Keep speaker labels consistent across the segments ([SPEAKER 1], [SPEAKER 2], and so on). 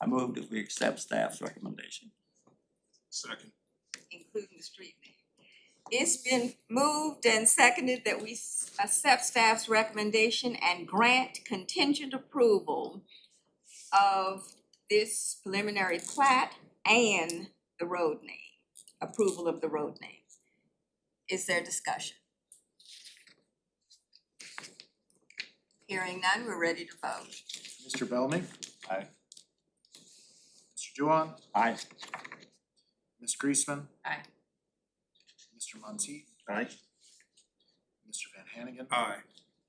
[SPEAKER 1] I move that we accept staff's recommendation.
[SPEAKER 2] Second.
[SPEAKER 3] including the street name. It's been moved and seconded that we s- accept staff's recommendation and grant contingent approval of this preliminary plat and the road name, approval of the road name. Is there discussion? Hearing none, we're ready to vote.
[SPEAKER 4] Mr. Bellamy.
[SPEAKER 1] Aye.
[SPEAKER 4] Mr. Juwan,
[SPEAKER 1] Aye.
[SPEAKER 4] Ms. Greisman.
[SPEAKER 3] Aye.
[SPEAKER 4] Mr. Muncy,
[SPEAKER 1] Aye.
[SPEAKER 4] Mr. Van Hannigan.
[SPEAKER 2] Aye.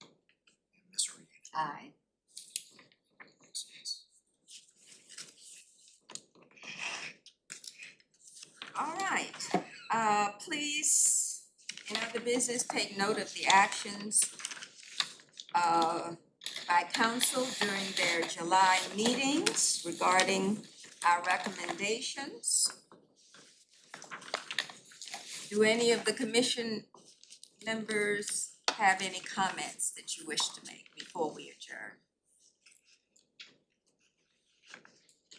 [SPEAKER 4] And Ms. Reed.
[SPEAKER 3] Aye. All right, uh, please, in other business, take note of the actions uh, by council during their July meetings regarding our recommendations. Do any of the commission members have any comments that you wish to make before we adjourn?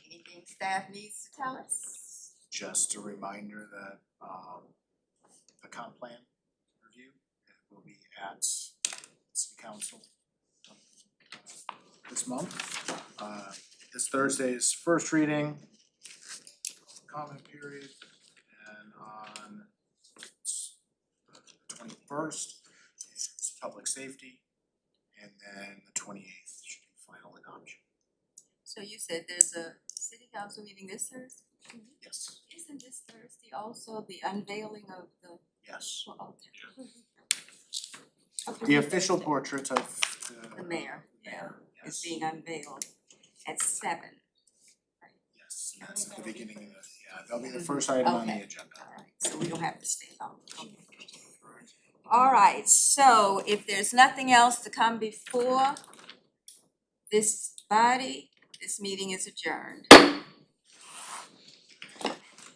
[SPEAKER 3] Anything staff needs to tell us?
[SPEAKER 4] Just a reminder that um the comp plan review will be at city council uh, this month. Uh this Thursday's first reading, comment period, and on the twenty first is public safety. And then the twenty eighth should be final adoption,
[SPEAKER 3] So you said there's a city council meeting this Thursday?
[SPEAKER 4] yes,
[SPEAKER 3] Isn't this Thursday also the unveiling of the,
[SPEAKER 4] yes.
[SPEAKER 3] well, okay.
[SPEAKER 4] The official portrait of the
[SPEAKER 3] The mayor, yeah,
[SPEAKER 4] Yes.
[SPEAKER 3] is being unveiled at seven.
[SPEAKER 4] Yes, yes, at the beginning of the, yeah, that'll be the first item on the
[SPEAKER 3] Okay.
[SPEAKER 4] agenda.
[SPEAKER 3] Alright, so we don't have to stay long. Alright, so if there's nothing else to come before this body, this meeting is adjourned.